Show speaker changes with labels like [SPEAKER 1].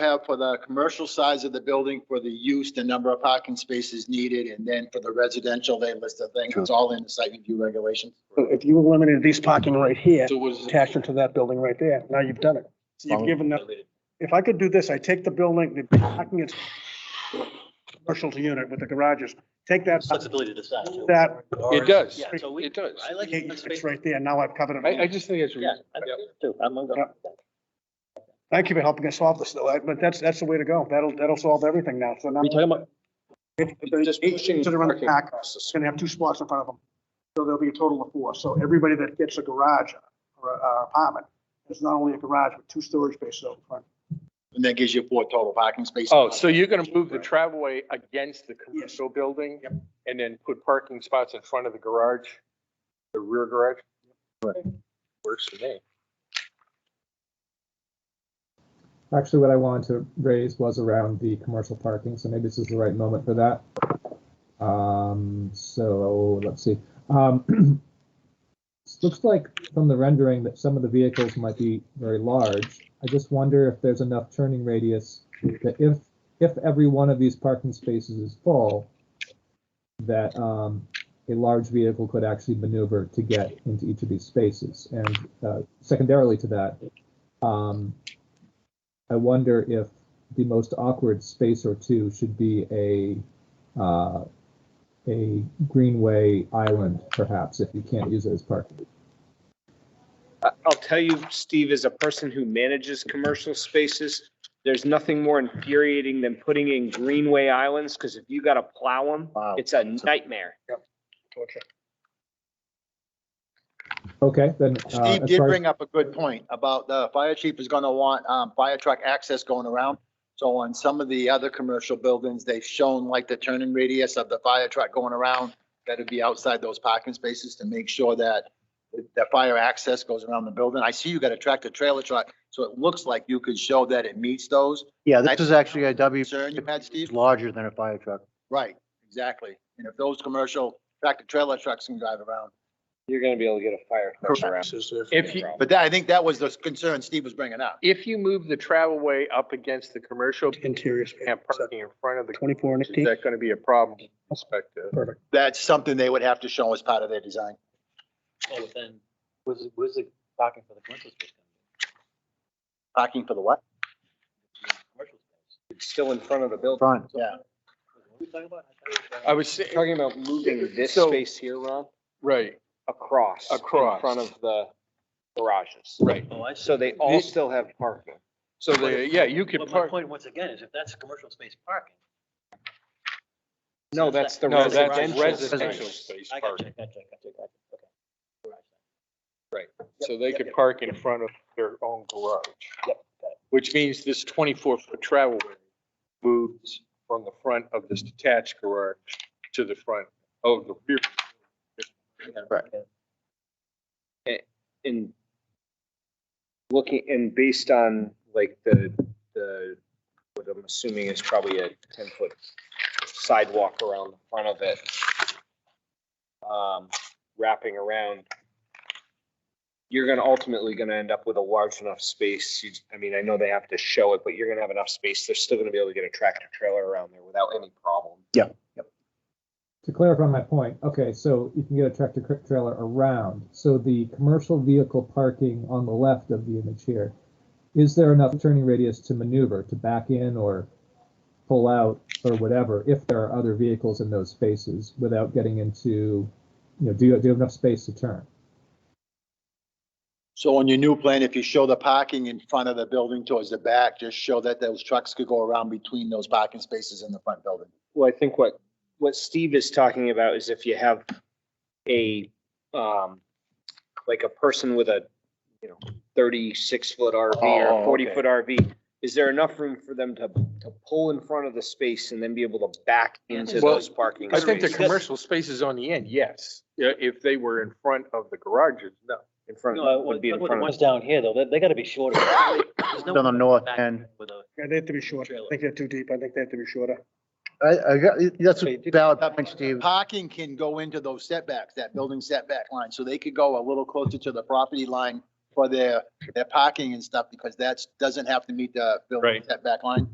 [SPEAKER 1] have for the commercial size of the building for the use, the number of parking spaces needed, and then for the residential, they list the thing. It's all in the site review regulations.
[SPEAKER 2] So If you eliminated these parking right here,
[SPEAKER 3] So was,
[SPEAKER 2] attached into that building right there, now you've done it. So You've given them, if I could do this, I take the building, the parking is commercial unit with the garages, take that,
[SPEAKER 4] Flexibility to decide too.
[SPEAKER 2] that,
[SPEAKER 3] it does,
[SPEAKER 4] Yeah, so we-
[SPEAKER 3] it does.
[SPEAKER 4] I like. the
[SPEAKER 2] it's
[SPEAKER 4] space-
[SPEAKER 2] right there, now I've covered
[SPEAKER 3] I, I
[SPEAKER 2] it.
[SPEAKER 3] just think it's,
[SPEAKER 4] Yeah, I
[SPEAKER 3] yeah.
[SPEAKER 4] think too. I'm gonna go.
[SPEAKER 2] Thank you for helping us solve this though, I- but that's, that's the way to go. That'll, that'll solve everything now, so now.
[SPEAKER 4] We talking about,
[SPEAKER 3] Just
[SPEAKER 2] Eight
[SPEAKER 3] pushing
[SPEAKER 2] seats that are on the
[SPEAKER 3] parking
[SPEAKER 2] back,
[SPEAKER 3] across the
[SPEAKER 2] it's gonna have two spots in front of them. So there'll be a total of four. So everybody that gets a garage or a- a apartment, it's not only a garage, but two storage spaces out front.
[SPEAKER 1] And that gives you four total parking spaces.
[SPEAKER 3] Oh, so you're gonna move the travelway against the commercial building?
[SPEAKER 2] Yep.
[SPEAKER 3] And then put parking spots in front of the garage, the rear garage? Works for me.
[SPEAKER 5] Actually, what I wanted to raise was around the commercial parking, so maybe this is the right moment for that. Um, so let's see. Um, it looks like from the rendering that some of the vehicles might be very large. I just wonder if there's enough turning radius that if if every one of these parking spaces is full, that um, a large vehicle could actually maneuver to get into each of these spaces. And uh, secondarily to that, um, I wonder if the most awkward space or two should be a uh, a greenway island, perhaps, if you can't use it as parking.
[SPEAKER 6] I- I'll tell you, Steve, as a person who manages commercial spaces, there's nothing more infuriating than putting in greenway islands, because if you gotta plow them,
[SPEAKER 4] wow.
[SPEAKER 6] it's a nightmare.
[SPEAKER 5] Okay, then. uh,
[SPEAKER 1] Steve
[SPEAKER 5] as
[SPEAKER 1] did
[SPEAKER 5] far as-
[SPEAKER 1] bring up a good point about the fire chief is gonna want, um, fire truck access going around. So on some of the other commercial buildings, they've shown like the turning radius of the fire truck going around. That'd be outside those parking spaces to make sure that the fire access goes around the building. I see you got a tractor trailer truck, so it looks like you could show that it meets those.
[SPEAKER 4] Yeah, this is actually a W,
[SPEAKER 1] Concern you had, Steve?
[SPEAKER 4] it's larger than a fire truck.
[SPEAKER 1] Right, exactly. And if those commercial tractor trailer trucks can drive around.
[SPEAKER 6] You're gonna be able to get a fire truck around.
[SPEAKER 3] If you,
[SPEAKER 1] But that, I think that was the concern Steve was bringing up.
[SPEAKER 3] if you move the travelway up against the commercial
[SPEAKER 2] Interior space.
[SPEAKER 3] and parking in front of the,
[SPEAKER 2] Twenty-four and
[SPEAKER 3] is
[SPEAKER 2] eighteen.
[SPEAKER 3] that gonna be a problem from your perspective?
[SPEAKER 1] That's something they would have to show as part of their design.
[SPEAKER 4] Oh, then, where's, the- where's the parking for the commercial space?
[SPEAKER 1] Parking for the what?
[SPEAKER 4] Commercial space.
[SPEAKER 6] It's still in front of the building.
[SPEAKER 4] Front.
[SPEAKER 1] Yeah.
[SPEAKER 4] What are we talking about?
[SPEAKER 3] I was, sa-
[SPEAKER 6] Talking about moving this
[SPEAKER 3] So-
[SPEAKER 6] space here, Ron,
[SPEAKER 3] right,
[SPEAKER 6] across.
[SPEAKER 3] Across.
[SPEAKER 6] In front of the garages.
[SPEAKER 3] right.
[SPEAKER 4] Oh, I see.
[SPEAKER 6] So they all still have parking.
[SPEAKER 3] So the, yeah, you could
[SPEAKER 4] But my
[SPEAKER 3] park,
[SPEAKER 4] point, once again, is if that's commercial space parking.
[SPEAKER 6] No, that's the
[SPEAKER 3] no, that's
[SPEAKER 6] residential.
[SPEAKER 3] residential
[SPEAKER 6] space.
[SPEAKER 3] space
[SPEAKER 4] I got you,
[SPEAKER 3] parking.
[SPEAKER 4] I got you, I got you, I got you. Okay.
[SPEAKER 3] So they could park in front of their own garage.
[SPEAKER 4] Yep, got it.
[SPEAKER 3] Which means this twenty-four foot travel way moves from the front of this detached garage to the front of the rear.
[SPEAKER 4] I got it.
[SPEAKER 3] Right.
[SPEAKER 4] Okay.
[SPEAKER 6] in looking and based on like the, the, what I'm assuming is probably a ten foot sidewalk around the front of it. Um, wrapping around. You're gonna ultimately gonna end up with a large enough space. You, I mean, I know they have to show it, but you're gonna have enough space. They're still gonna be able to get a tractor trailer around there without any problem.
[SPEAKER 5] To clarify my point, okay, so you can get a tractor cr- trailer around. So the commercial vehicle parking on the left of the image here, is there enough turning radius to maneuver, to back in or pull out or whatever, if there are other vehicles in those spaces without getting into, you know, do you, do you have enough space to turn?
[SPEAKER 1] So on your new plan, if you show the parking in front of the building towards the back, just show that those trucks could go around between those parking spaces in the front building.
[SPEAKER 6] Well, I think what, what Steve is talking about is if you have a, um, like a person with a, you know, thirty-six foot RV
[SPEAKER 3] Oh,
[SPEAKER 6] or forty
[SPEAKER 3] okay.
[SPEAKER 6] foot RV, is there enough room for them to, to pull in front of the space and then be able to back into
[SPEAKER 3] Well,
[SPEAKER 6] those parking
[SPEAKER 3] I think the
[SPEAKER 6] spaces?
[SPEAKER 3] commercial spaces on the end, yes. Yeah, if they were in front of the garages, no.
[SPEAKER 6] In front,
[SPEAKER 4] No, I-
[SPEAKER 6] would be in
[SPEAKER 4] what- what the
[SPEAKER 6] front of.
[SPEAKER 4] ones down here, though, they, they gotta be shorter. There's no
[SPEAKER 7] On the
[SPEAKER 4] way
[SPEAKER 7] north
[SPEAKER 4] back
[SPEAKER 7] end.
[SPEAKER 4] With a,
[SPEAKER 2] Yeah, they have to be shorter. I think they're too deep. I think they have to be shorter.
[SPEAKER 7] I, I got, that's a
[SPEAKER 6] Okay, did-
[SPEAKER 7] valid point, Steve.
[SPEAKER 1] Parking can go into those setbacks, that building setback line, so they could go a little closer to the property line for their, their parking and stuff because that's, doesn't have to meet the building
[SPEAKER 3] Right.
[SPEAKER 1] setback line.